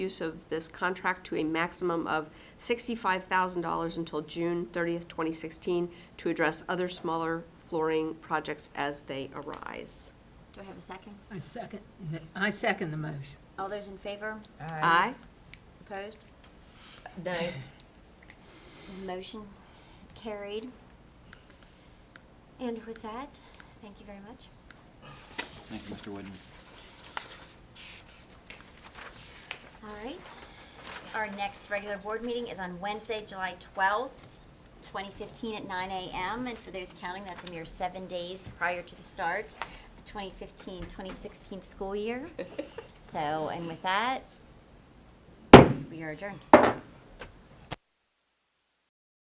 use of this contract to a maximum of $65,000 until June 30th, 2016, to address other smaller flooring projects as they arise. Do I have a second? I second, the- I second the motion. All those in favor? Aye. Opposed? No. Motion carried. And with that, thank you very much. Thank you, Mr. Whitten. All right. Our next regular board meeting is on Wednesday, July 12th, 2015 at 9 a.m. And for those counting, that's a mere seven days prior to the start of the 2015-2016 school year. So, and with that, we are adjourned.